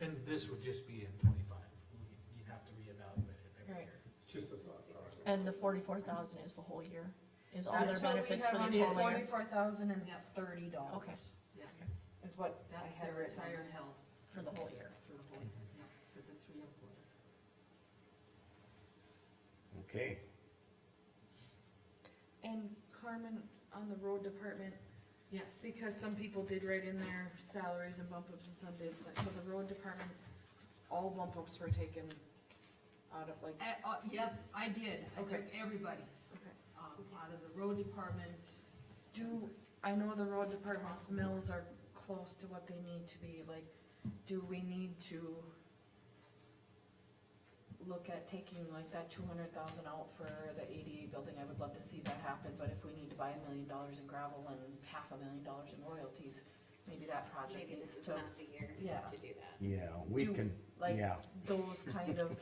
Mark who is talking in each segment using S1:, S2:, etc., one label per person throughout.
S1: And this would just be in twenty-five, you'd have to reevaluate it every
S2: Right.
S1: year.
S3: Just a thought process.
S2: And the forty-four thousand is the whole year, is all their
S4: That's what we
S2: benefits for
S4: have on
S2: the
S4: the
S2: total year?
S4: forty-four thousand and thirty dollars.
S2: Okay.
S5: Yeah,
S4: Is what I
S5: that's
S4: had
S5: their
S4: written.
S5: retired health
S2: For the whole year.
S5: for the whole, yeah, for the three employees.
S6: Okay,
S4: And Carmen, on the road department,
S5: Yes,
S4: because some people did write in their salaries and bump ups and some did, but so the road department, all bump ups were taken out of like,
S5: Uh, uh, yep, I did, I took
S4: Okay.
S5: everybody's,
S4: okay.
S5: um, out of the road department,
S4: Do, I know the road department's mills are close to what they need to be, like, do we need to look at taking like that two hundred thousand out for the ADA building, I would love to see that happen, but if we need to buy a million dollars in gravel and half a million dollars in royalties, maybe that project
S7: Maybe
S4: needs
S7: this is
S4: to,
S7: not the year
S4: yeah.
S7: to do that.
S6: yeah, we
S4: Do-
S6: can,
S4: like,
S6: yeah,
S4: those kind of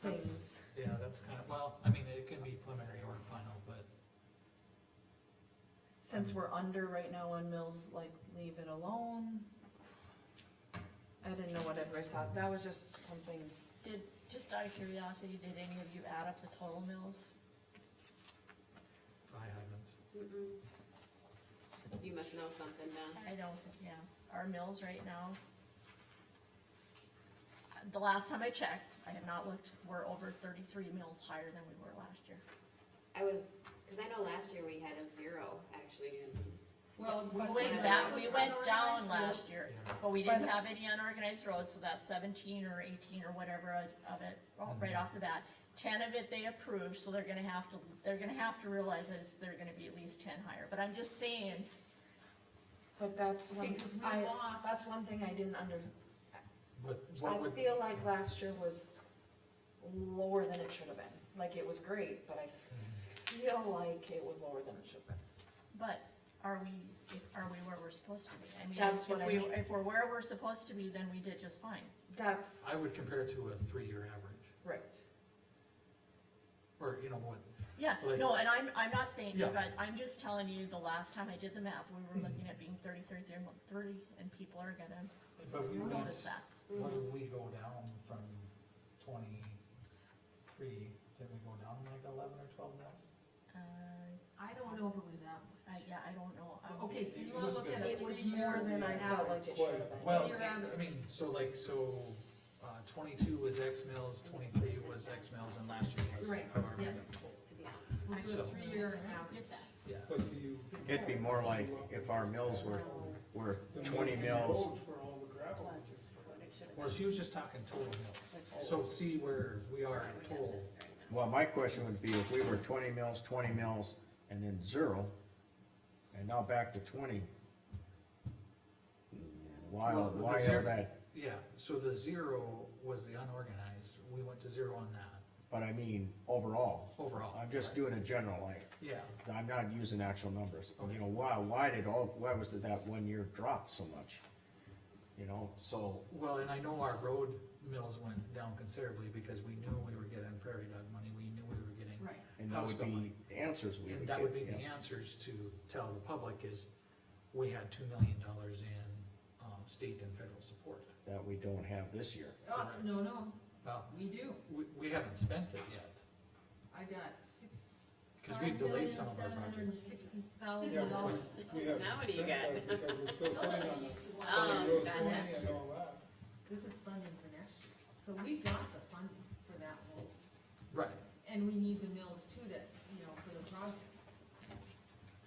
S4: things.
S1: Yeah, that's kind of, well, I mean, it can be preliminary or final, but Mm.
S4: Since we're under right now on mills, like, leave it alone. I didn't know what everybody thought, that was just something
S2: Did, just out of curiosity, did any of you add up the total mills?
S1: I haven't.
S7: You must know something, Don.
S2: I don't, think- yeah, our mills right now. uh, The last time I checked, I had not looked, we're over thirty-three mills higher than we were last year.
S7: I was, cause I know last year we had a zero actually in,
S5: well.
S2: We
S5: but
S2: went
S5: when
S2: back,
S5: I
S2: we
S5: was
S2: went down
S5: unorganized,
S2: last year, but we
S4: By
S2: didn't
S4: the-
S2: have any unorganized roads, so that's seventeen or eighteen or whatever of it, oh,
S1: Mm-hmm.
S2: right off the bat. Ten of it they approved, so they're gonna have to, they're gonna have to realize that it's, they're gonna be at least ten higher, but I'm just saying,
S4: But that's one,
S5: Because we
S4: I,
S5: lost-
S4: that's one thing I didn't under,
S1: But what
S4: I
S1: would,
S4: feel like last year was lower than it should have been. Like, it was great, but I feel like it was lower than it should have been.
S2: but are we, are we where we're supposed to be? I mean,
S4: That's
S2: if
S4: what I
S2: we,
S4: mean.
S2: if we're where we're supposed to be, then we did just fine.
S4: That's
S1: I would compare it to a three-year average,
S4: right.
S1: or, you know, what,
S2: Yeah,
S1: Like-
S2: no, and I'm, I'm not saying you
S1: Yeah. Hmm.
S2: guys, I'm just telling you, the last time I did the math, we were looking at being thirty-three, thirty, and people are gonna
S1: but we went,
S2: notice that.
S3: What did we go down from twenty-three, did we go down like eleven or twelve mils?
S2: Uh,
S5: I don't know if it was that
S2: I,
S5: much.
S2: yeah, I don't know. I'm-
S5: Okay, so
S1: It
S5: you wanna
S1: was
S5: look
S1: good.
S5: at a
S4: It was
S5: three-year
S4: more than I felt like
S5: average.
S4: it should have been.
S1: well,
S5: Three-year
S1: I
S5: average.
S1: mean, so like, so, uh, twenty-two was X mills, twenty-three was X mills, and last year was
S5: Right,
S1: however
S5: yes.
S1: many.
S7: to be honest.
S5: We'll do a
S1: So-
S5: three-year
S2: I don't
S5: average.
S2: get that.
S1: Yeah,
S3: But do you?
S6: it'd be more like if our mills were, were
S3: the
S6: twenty
S3: maintenance
S6: mills,
S3: road For all the gravel.
S7: Plus what it should have
S1: well,
S7: been.
S1: she was just talking total mills, so see where we are
S7: Right,
S1: in
S7: we have
S1: total.
S7: this right now.
S6: well, my question would be if we were twenty mills, twenty mills, and then zero, and now back to twenty. Why,
S1: Well, the
S6: why
S1: zero-
S6: are that,
S1: Yeah, so the zero was the unorganized, we went to zero on that
S6: but I mean, overall,
S1: overall.
S6: I'm just doing a general, like,
S1: Yeah,
S6: I'm not using actual numbers, you know, why, why did all, why was it that one year drop so much? You know, so,
S1: well, and I know our road mills went down considerably because we knew we were getting prairie dog money, we knew we were getting.
S5: Right.
S6: and that
S1: house
S6: would
S1: bill money.
S6: be the answers we would
S1: And
S6: get.
S1: that would be the
S6: yeah.
S1: answers to tell the public is, we had two million dollars in, um, state and federal support.
S6: that we don't have this year.
S5: Uh, no, no,
S1: Well,
S5: we do.
S1: we, we haven't spent it yet,
S5: I got six.
S1: cause we've delayed some of our
S5: Five million,
S1: projects.
S5: seven hundred and sixty thousand dollars.
S3: We haven't
S7: Now what do you
S3: spent that Because we're still planning on the
S7: Um,
S3: county road
S7: gotcha.
S3: 20 and all that.
S5: This is funding for next year, so we got the funding for that whole,
S1: Right,
S5: and we need the mills too to, you know, for the project.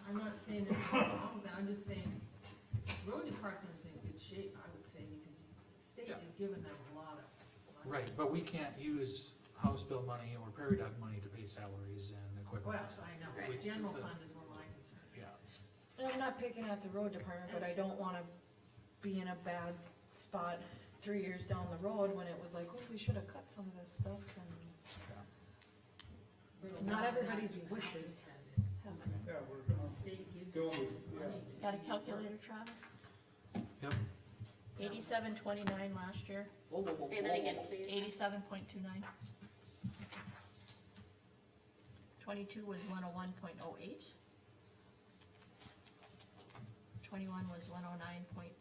S5: I'm not saying it's wrong, but I'm just saying, road department's in good shape, I would say, because the state
S1: Yeah.
S5: has given them a lot of. money.
S1: right, but we can't use house bill money or prairie dog money to pay salaries and
S5: Well,
S1: equipment. and stuff.
S5: I know,
S1: Right.
S5: general fund is where my concern is.
S1: Yeah,
S4: And I'm not picking at the road department, but I don't wanna be in a bad spot three years down the road when it was like, oh, we should have cut some of this stuff and.
S5: We're
S4: Not
S5: allowed that.
S4: everybody's
S5: You have to
S4: wishes.
S5: spend it.
S3: Yeah, we're
S5: The
S3: gone.
S5: state gives
S3: Go,
S5: you this
S3: yeah.
S5: money to
S2: Got a
S5: do your work.
S2: calculator, Travis?
S1: Yep.
S2: Eighty-seven twenty-nine last year,
S7: Say that again, please.
S2: eighty-seven point two nine. Twenty-two was one oh one point oh eight. Twenty-one was one oh nine point